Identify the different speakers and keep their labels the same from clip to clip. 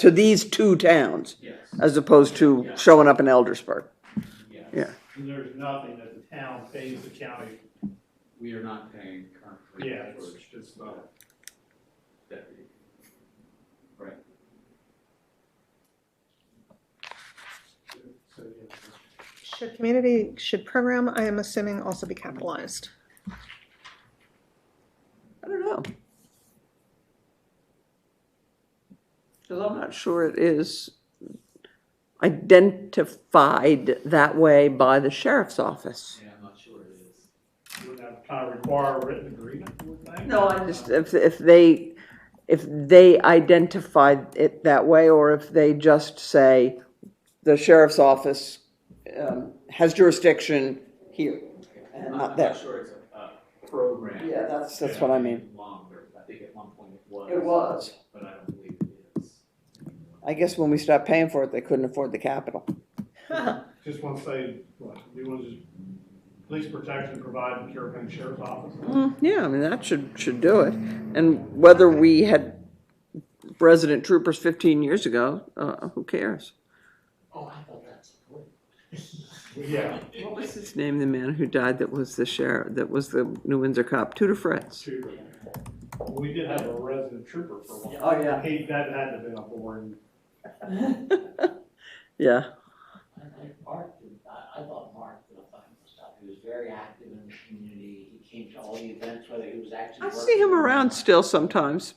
Speaker 1: to these two towns
Speaker 2: Yes,
Speaker 1: as opposed to showing up in Eldersburg.
Speaker 2: yes.
Speaker 1: Yeah.
Speaker 3: And there's nothing that the town pays the county,
Speaker 2: We are not paying currently.
Speaker 3: yeah,
Speaker 2: for
Speaker 3: it's, it's not.
Speaker 2: deputy. Right.
Speaker 3: So, yeah.
Speaker 4: Should community, should program, I am assuming, also be capitalized?
Speaker 1: I don't know. Because I'm not sure it is identified that way by the sheriff's office.
Speaker 2: Yeah, I'm not sure it is.
Speaker 3: You would have to kind of require a written agreement, you would think?
Speaker 1: No, I just, if, if they, if they identified it that way, or if they just say, the sheriff's office um, has jurisdiction here.
Speaker 2: I'm
Speaker 1: not
Speaker 2: I'm
Speaker 1: there.
Speaker 2: not sure it's a, a program.
Speaker 1: Yeah, that's, that's what I mean.
Speaker 2: Longer, I think at one point it was.
Speaker 1: It was.
Speaker 2: But I don't believe it is.
Speaker 1: I guess when we stopped paying for it, they couldn't afford the capital.
Speaker 3: Just want to say, what, you want to just, police protection provided, Carroll County Sheriff's Office.
Speaker 1: Mm, Yeah, I mean, that should, should do it. And whether we had resident troopers fifteen years ago, uh, who cares?
Speaker 2: Oh, I thought that's.
Speaker 3: Well,
Speaker 1: Mm-hmm.
Speaker 3: Yeah,
Speaker 1: What was his name, the man who died that was the sheriff, that was the New Windsor cop, Tudor Fritz?
Speaker 3: trooper. We did have a resident trooper for one.
Speaker 1: Oh, yeah.
Speaker 3: He, that had to have been a born,
Speaker 1: Yeah,
Speaker 5: I think Mark, did- I, I thought Mark did a fine stuff. He was very active in the community. He came to all the events, whether he was actually
Speaker 1: I
Speaker 5: working.
Speaker 1: see him
Speaker 5: or
Speaker 1: around
Speaker 5: not.
Speaker 1: still sometimes,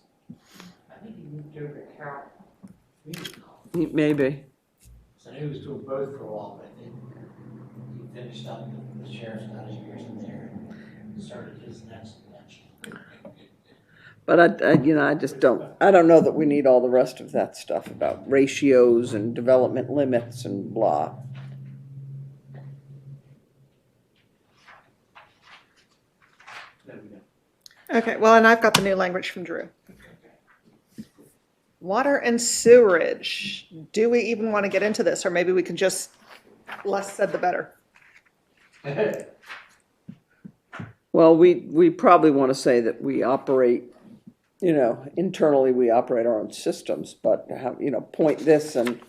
Speaker 5: I think he moved over to Carroll Community College.
Speaker 1: He- maybe.
Speaker 5: So he was doing both for a while, but then he finished up with the sheriff's got his years in there and started his next convention.
Speaker 1: But I, I, you know, I just don't, I don't know that we need all the rest of that stuff about ratios and development limits and blah.
Speaker 2: Then we don't.
Speaker 4: Okay, well, and I've got the new language from Drew. Water and sewerage, do we even want to get into this, or maybe we can just, less said the better?
Speaker 1: Well, we, we probably want to say that we operate, you know, internally, we operate our own systems, but how, you know, point this and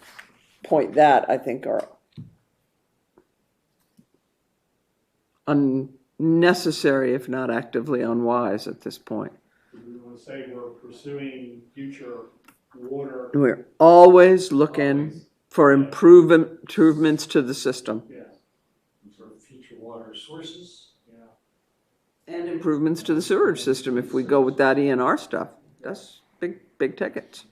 Speaker 1: point that, I think are unnecessary, if not actively unwise at this point.
Speaker 3: we want to say we're pursuing future water,
Speaker 1: We're always looking for improvem- improvements to the system
Speaker 3: yeah,
Speaker 5: For future water sources.
Speaker 3: yeah.
Speaker 1: and improvements to the sewerage system if we go with that ENR stuff. That's big, big tickets.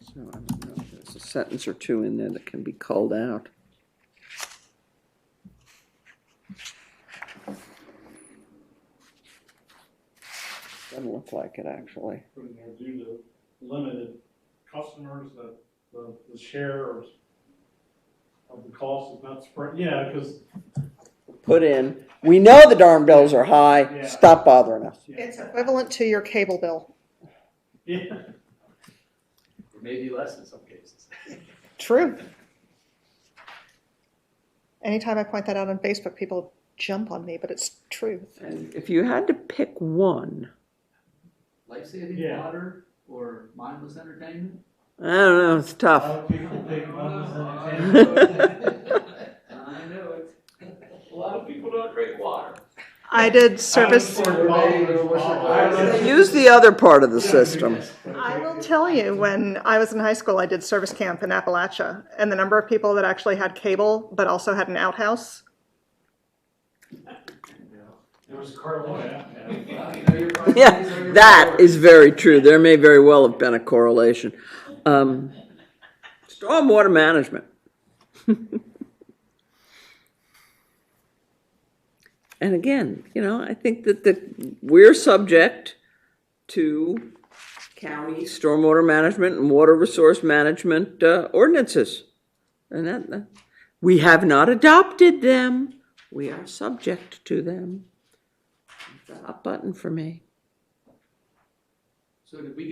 Speaker 1: So I don't know if there's a sentence or two in there that can be culled out. Doesn't look like it, actually.
Speaker 3: putting there due to limited customers, that the, the share of, of the cost is not spread, yeah, because.
Speaker 1: Put in, we know the darn bills are high,
Speaker 3: Yeah.
Speaker 1: stop bothering us.
Speaker 4: It's equivalent to your cable bill.
Speaker 3: Yeah,
Speaker 2: Or maybe less in some cases.
Speaker 4: True. Anytime I point that out on Facebook, people jump on me, but it's true.
Speaker 1: And if you had to pick one,
Speaker 2: Life-saving
Speaker 3: Yeah.
Speaker 2: water or mindless entertainment?
Speaker 1: I don't know, it's tough.
Speaker 3: Uh, people take those
Speaker 4: Uh,
Speaker 3: as an example.
Speaker 2: I know it. A lot of people don't drink water.
Speaker 4: I did service.
Speaker 1: Use the other part of the system.
Speaker 4: I will tell you, when I was in high school, I did service camp in Appalachia, and the number of people that actually had cable but also had an outhouse.
Speaker 5: There was Carlisle.
Speaker 1: Yeah, that is very true. There may very well have been a correlation. Um, Stormwater management. And again, you know, I think that the, we're subject to county stormwater management and water resource management uh, ordinances. And that, that- we have not adopted them. We are subject to them. Hot button for me.
Speaker 2: So did we